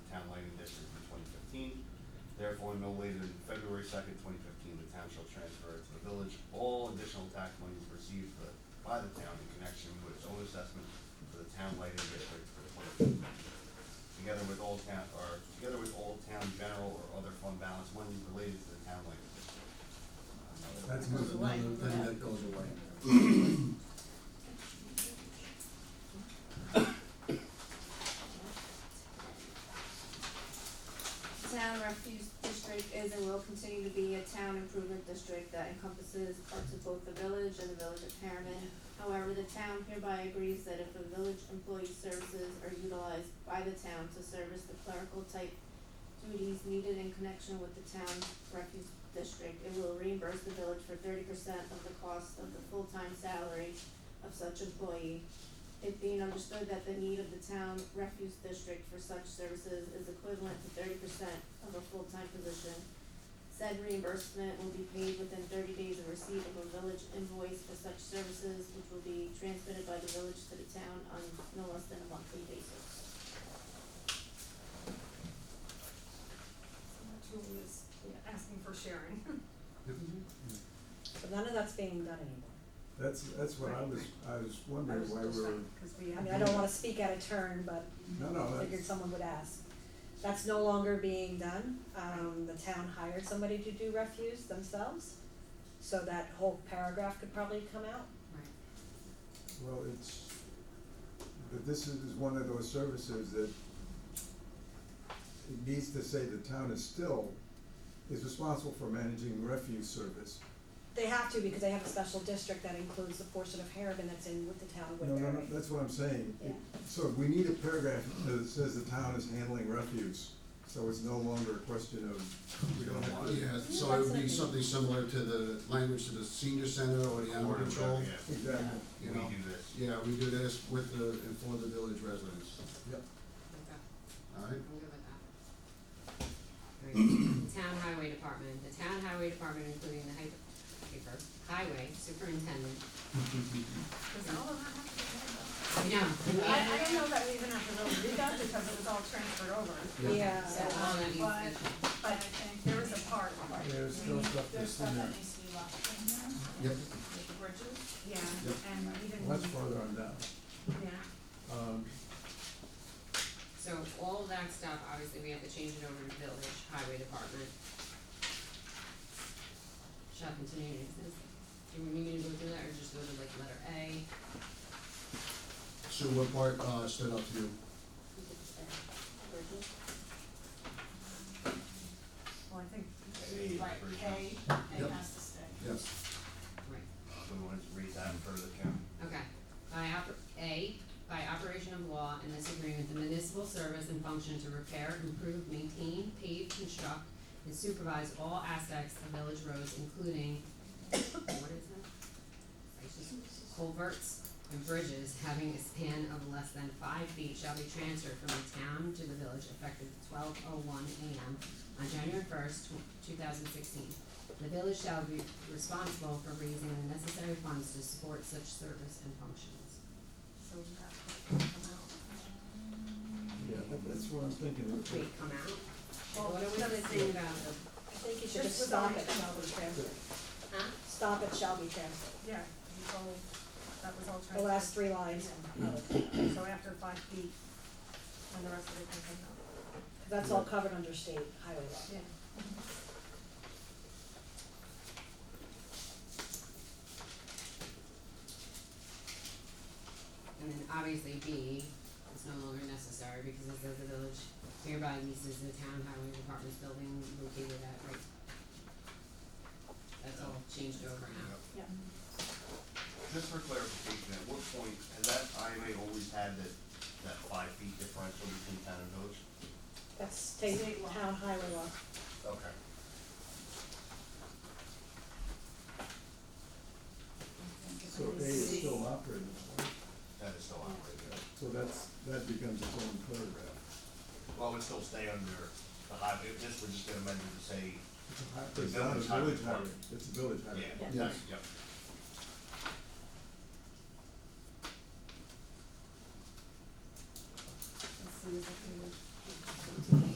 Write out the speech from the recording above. going no later than February second, twenty fifteen, the town shall transfer to the village all additional tax monies received for- by the town in connection with its own assessment for the town lighting district for twenty fifteen. Together with all town, or together with all town general or other fund balance monies related to the town lighting district. Another- That's another away. another thing that goes away. Town refuse district is and will continue to be a town improvement district that encompasses parts of both the village and the village of Harriman. However, the town hereby agrees that if a village employee's services are utilized by the town to service the clerical type duties needed in connection with the town refuse district, it will reimburse the village for thirty percent of the cost of the full-time salary of such employee it being understood that the need of the town refuse district for such services is equivalent to thirty percent of a full-time position. Said reimbursement will be paid within thirty days of receipt of a village invoice for such services, which will be transmitted by the village to the town on no less than a monthly basis. Julie is asking for sharing. But none of that's being done anymore. That's, that's what I was, I was wondering why we were, Cause we I have. mean, I don't wanna speak out of turn, but no, no, I figured that's, someone would ask. That's no longer being done, um, the town hired somebody to do refuse themselves, so that whole paragraph could probably come out. well, it's, but this is one of those services that it needs to say the town is still, is responsible for managing refuse service. They have to, because they have a special district that includes the portion of Harriman that's in with the town of No, no, Woodbury. no, that's what I'm saying. Yeah. So we need a paragraph that says the town is handling refuse, so it's no longer a question of, we don't have to. Yeah, so it would be something similar to the language to the senior center or the animal Or, control. yeah, Exactly, we You know. do this. Yeah, we do this with the, and for the village residents, yep. all right? I'm good with that. Alright, Town Highway Department, the Town Highway Department, including the hy- paper, highway superintendent, Does all of that have to be handled? you know. I, I don't know that we even have to really do that because it was all transferred over, Yeah, So, all that needs But- to- but I think there is a part. There's still stuff that's in there. Yep, Yeah, Yep. and even. Much farther on down. Yeah, Um, so all that stuff, obviously, we have to change it over to Village Highway Department. Shall continue to exist. Do we need to go through that, or just go to like letter A? so what part, uh, stood out to you? You could say, Virgil. well, I think, Hey, Right, for K, Yep. it has to stay. Yes, Right. So we wanted to read that further, Karen. Okay, by oper- A, by operation of law in this agreement, the municipal service and function to repair, improve, maintain, pave, construct, and supervise all aspects of village roads, including, what is that? I just- Culverts and bridges having a span of less than five feet shall be transferred from the town to the village effective twelve oh one AM on January first, two thousand sixteen. The village shall be responsible for raising the necessary funds to support such service and functions. so that part can come out. yeah, that- that's what I'm thinking. Wait, come out? What are we missing about the, I think you should Just just stop without it, shall be transferred, huh? stop it, shall be transferred, Yeah, it was all, that was all transferred. the last three lines. So after five feet, and the rest of it can come out. That's all covered under state highway law. Yeah. And then obviously B is no longer necessary because it says the village hereby leases the town highway department's building located at right. That's all changed over now. Just for clarification, at what point, has that IMA always had that, that five feet differential between town and village? That's state State law. town highway law. Okay. So A is still operating, That is still operating, yeah. so that's, that becomes its own paragraph. well, it would still stay under the highway, if this, we're just gonna amend it to say, It's a hi- The It's not a village highway village highway, department. it's a village highway. yeah, Yeah. thanks, yep. Let's see if I can-